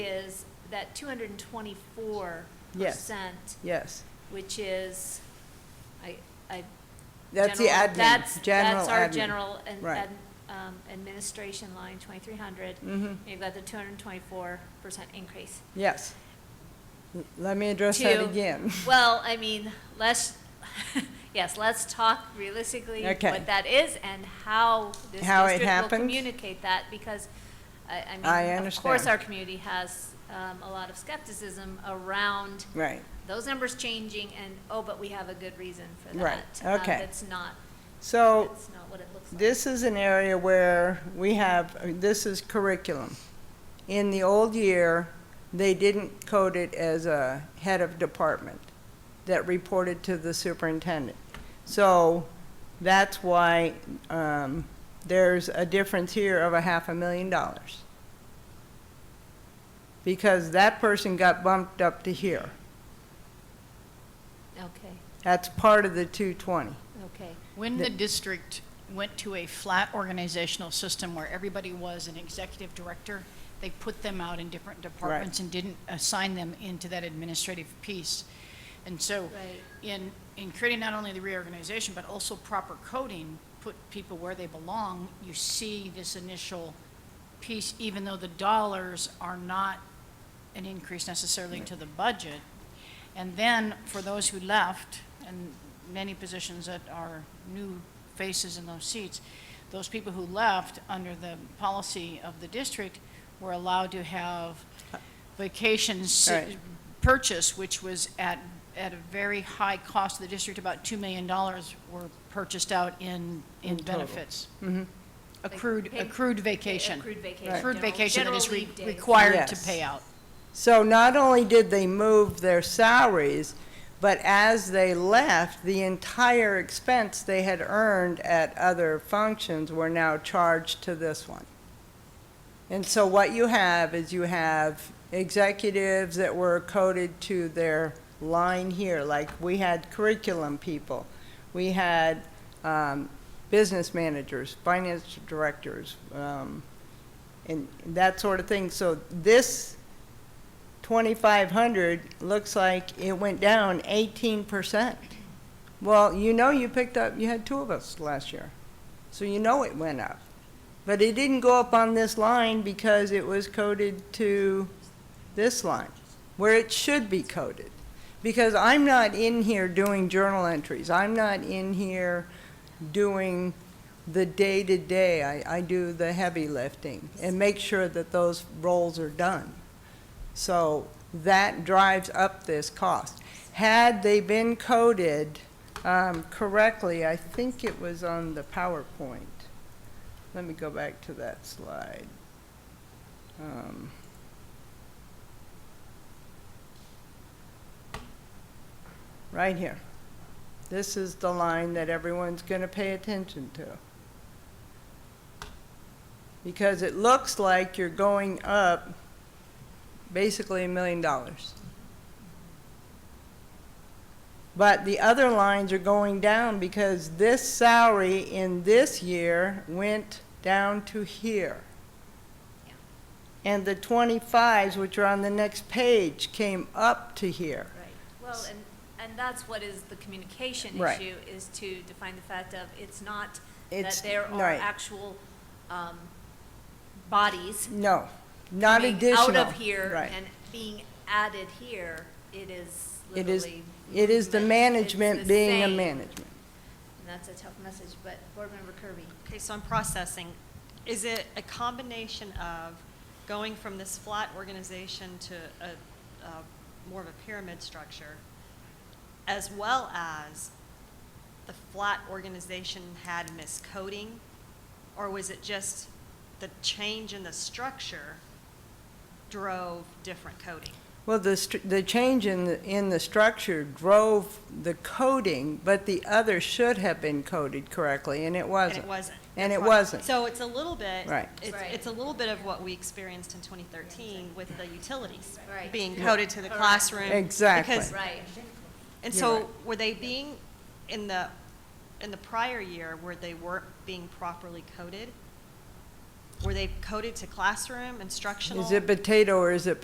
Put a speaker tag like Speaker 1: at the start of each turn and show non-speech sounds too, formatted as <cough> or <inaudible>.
Speaker 1: is that two hundred and twenty-four
Speaker 2: Yes.
Speaker 1: percent,
Speaker 2: Yes,
Speaker 1: which is, I, I.
Speaker 2: that's the
Speaker 1: general-
Speaker 2: admin,
Speaker 1: That's,
Speaker 2: general
Speaker 1: that's our
Speaker 2: admin.
Speaker 1: general and,
Speaker 2: Right.
Speaker 1: um, administration line, twenty-three hundred.
Speaker 2: Mhm.
Speaker 1: You've got the two hundred and twenty-four percent increase.
Speaker 2: Yes. L- Let me address that
Speaker 1: To-
Speaker 2: again.
Speaker 1: Well, I mean, let's, <laughs> yes, let's talk realistically
Speaker 2: Okay.
Speaker 1: what that is and how this
Speaker 2: How it
Speaker 1: district will
Speaker 2: happens?
Speaker 1: communicate that, because I, I
Speaker 2: I
Speaker 1: mean, of course,
Speaker 2: understand.
Speaker 1: our community has, um, a lot of skepticism around
Speaker 2: <laughs> Right.
Speaker 1: those numbers changing and, oh, but we have a good reason for that.
Speaker 2: Right,
Speaker 1: Um,
Speaker 2: okay.
Speaker 1: That's not,
Speaker 2: So
Speaker 1: that's not what it looks like.
Speaker 2: this is an area where we have, this is curriculum. In the old year, they didn't code it as a head of department that reported to the superintendent. So that's why um, there's a difference here of a half a million dollars. Because that person got bumped up to here.
Speaker 1: Okay,
Speaker 2: That's part of the 220.
Speaker 1: okay.
Speaker 3: When
Speaker 2: The-
Speaker 3: the district went to a flat organizational system where everybody was an executive director, they put them out in different departments and didn't assign them into that administrative piece. And so,
Speaker 1: Right.
Speaker 3: in, in creating not only the reorganization, but also proper coding, put people where they belong, you see this initial piece, even though the dollars are not an increase necessarily to the budget. And then for those who left, and many positions that are new faces in those seats, those people who left under the policy of the district were allowed to have vacations
Speaker 2: Right.
Speaker 3: purchase, which was at, at a very high cost to the district, about $2 million were purchased out in, in
Speaker 2: total. Mm-hmm.
Speaker 3: benefits.
Speaker 1: Like
Speaker 3: Accrued,
Speaker 1: pay-
Speaker 3: accrued vacation.
Speaker 1: Accrued vacation.
Speaker 3: Accrued
Speaker 1: general-
Speaker 3: vacation that
Speaker 1: general
Speaker 3: is re-
Speaker 1: leave days.
Speaker 3: required to
Speaker 2: Yes.
Speaker 3: pay out.
Speaker 2: So not only did they move their salaries, but as they left, the entire expense they had earned at other functions were now charged to this one. And so what you have is you have executives that were coded to their line here, like we had curriculum people, we had um, business managers, finance directors, um, and that sort of thing. So this 2,500 looks like it went down 18%. Well, you know you picked up, you had two of us last year, so you know it went up. But it didn't go up on this line because it was coded to this line, where it should be coded. Because I'm not in here doing journal entries. I'm not in here doing the day-to-day. I, I do the heavy lifting and make sure that those roles are done. So that drives up this cost. Had they been coded um, correctly, I think it was on the PowerPoint. Let me go back to that slide. Um, Right here. This is the line that everyone's going to pay attention to. Because it looks like you're going up basically a million dollars. But the other lines are going down because this salary in this year went down to here.
Speaker 1: Yeah.
Speaker 2: And the twenty-fives, which are on the next page, came up to here.
Speaker 1: Right, well, and, and that's what is the communication
Speaker 2: Right.
Speaker 1: issue, is to define the fact of, it's not that
Speaker 2: It's-
Speaker 1: there are
Speaker 2: right.
Speaker 1: actual, um, bodies
Speaker 2: No, not
Speaker 1: being
Speaker 2: additional.
Speaker 1: out of here
Speaker 2: Right.
Speaker 1: and being added here, it is
Speaker 2: It is,
Speaker 1: literally.
Speaker 2: it is the
Speaker 1: movement. It's
Speaker 2: management
Speaker 1: the
Speaker 2: being a
Speaker 1: same.
Speaker 2: management.
Speaker 1: And that's a tough message, but Board Member Kirby.
Speaker 4: Okay, so I'm processing. Is it a combination of going from this flat organization to a, a more of a pyramid structure, as well as the flat organization had miscoding? Or was it just the change in the structure drove different coding?
Speaker 2: Well, the, str- the change in, the- in the structure drove the coding, but the other should have been coded correctly, and it
Speaker 4: And
Speaker 2: wasn't.
Speaker 4: it wasn't.
Speaker 2: And
Speaker 4: That's
Speaker 2: it
Speaker 4: why-
Speaker 2: wasn't.
Speaker 4: So it's a little bit.
Speaker 2: Right.
Speaker 4: It's,
Speaker 1: Right.
Speaker 4: it's a little bit of what we experienced in 2013 with the utilities.
Speaker 1: Right.
Speaker 4: Being coded to the
Speaker 1: Correct.
Speaker 4: classroom.
Speaker 2: Exactly.
Speaker 4: because-
Speaker 1: Right,
Speaker 4: And
Speaker 2: You're
Speaker 4: so
Speaker 2: right.
Speaker 4: were they being, in the, in the prior year, where they weren't being properly coded? Were they coded to classroom instructional?
Speaker 2: Is it potato or is it